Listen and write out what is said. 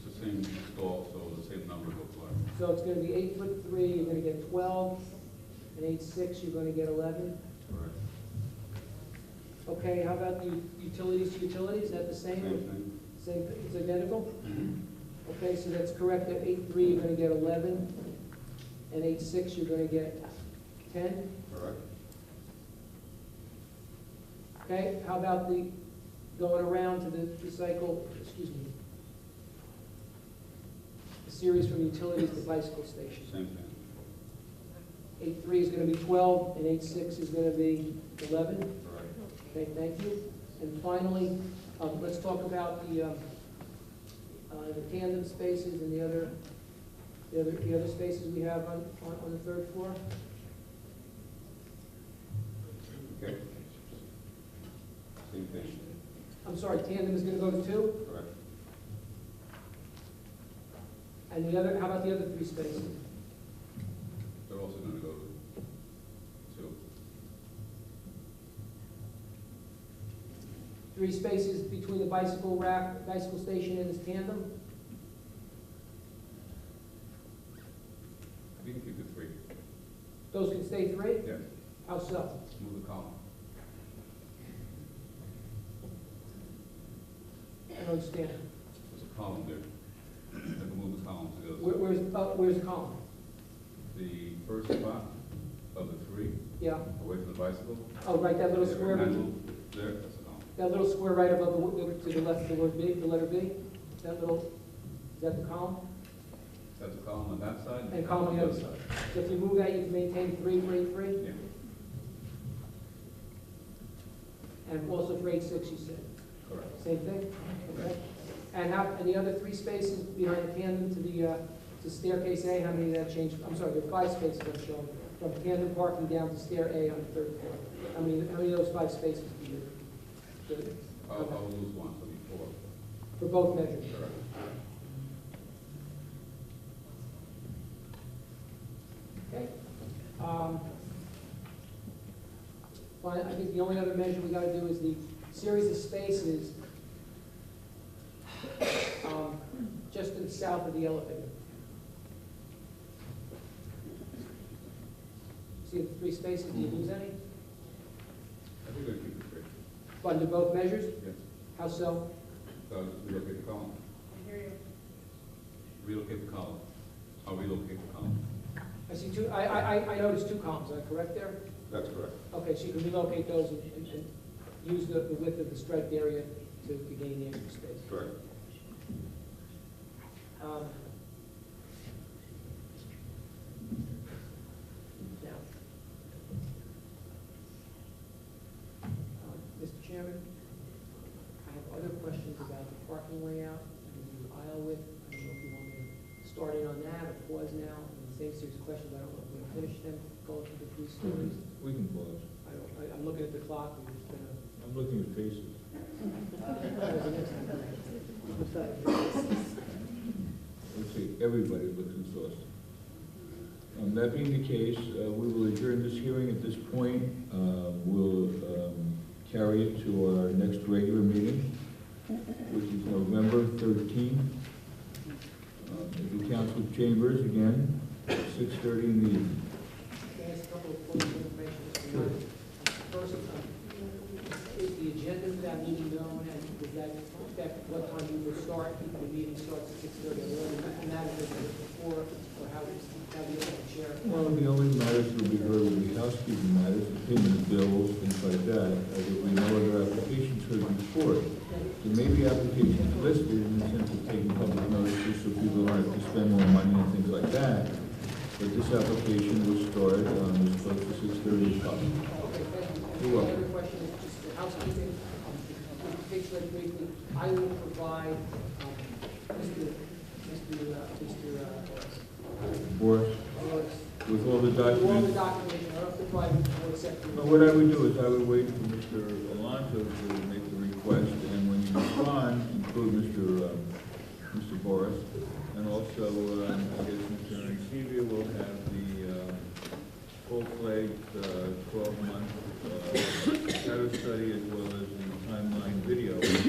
same stall, so the same number will apply. So it's gonna be eight foot three, you're gonna get twelve, and eight six, you're gonna get eleven. Correct. Okay, how about the utilities to utilities, is that the Same same? thing. Same, it's identical? Okay, so that's correct, at eight three, you're gonna get eleven, and eight six, you're gonna get ten, Correct. okay? How about the, going around to the the cycle, excuse me, the series from utilities to bicycle stations? Same thing. Eight three is gonna be twelve, and eight six is gonna be eleven? Correct. Okay, thank you. And finally, um, let's talk about the, um, uh, the tandem spaces and the other, the other, the other spaces we have on, on, on the third floor. Okay. Same thing. I'm sorry, tandem is gonna go to two, Correct. and the other, how about the other three spaces? They're also gonna go to two. Three spaces between the bicycle rack, bicycle station and this tandem? We can keep it three. Those can stay three? Yeah. How so? Move the column. I don't understand. There's a column there. I can move the column to the other. Where, where's, uh, where's the column? The first spot of the three, Yeah, away from the bicycle. oh, right, that little Yeah, square, that handle There, that's a column. little square right above the, wo- to the left of the word B, the letter B? That little, is that the column? That's a column on that side. And a column on the other side. So if you move that, you can maintain three for eight three, Yeah, and also for eight six, you said, correct. same thing? Okay. And how, and the other three spaces behind the tandem to the, uh, to staircase A, how many did that change? I'm sorry, there are five spaces I'm showing, from tandem parking down to stair A on the third floor. How many, how many of those five spaces do you? do- I'll, I'll lose one, so it'll be four. For both measures? Correct. Okay. Um, Well, I think the only other measure we gotta do is the series of spaces um, just to the south of the elevator. See the three spaces, do you lose any? I think we're gonna keep it three. Under both measures? Yes. How so? So just relocate the column. I hear you. Relocate the column. I'll relocate the column. I see two, I, I, I- I noticed two columns, am I correct there? That's correct. Okay, so you can relocate those and, and- and use the the width of the striped area to to gain the extra space. Correct. Um, Now. Uh, Mr. Chairman, I have other questions about the parking layout and the aisle width. I don't know if you want me to start in on that or pause now. And the same series of questions, I don't know if we're gonna finish them, go through the three stories. We can pause. I don't, I- I'm looking at the clock, and it's been a I'm looking at faces. Let's see, everybody looks exhausted. Um, that being the case, uh, we will adjourn this hearing at this point. Uh, we'll, um, carry it to our next regular meeting, which is November thirteenth. Um, At the council chambers again, six thirty in the evening. Can I ask a couple of points of information? Mr. Mayor? First, um, is the agenda for that meeting known, and does that affect what time you will start, if the meeting starts at six thirty, and that is before, or how is, how do you chair? Well, the only matters that will be heard will be housekeeping matters, opinion bills, things like that. Uh, There will be no other applications heard before. it. There may be applications listed in the sense of taking public notices so people aren't to spend more money and things like that. But this application was started on this close to six thirty o'clock. Okay, thank you. And You're The welcome. other question is just for housekeeping, um, with the picture that briefly, I will provide, um, Mr., Mr., uh, Mr. uh, Boris, Lawrence, with all the all the documents. documentation, I don't have to provide it for except. But what I would do is I would wait for Mr. Alonso to make the request, and when you respond, include Mr. um, Mr. Boris, and also, um, I guess, Mr. Ankevia will have the um, uh, full-fledged uh, twelve-month data study as well as the timeline video, which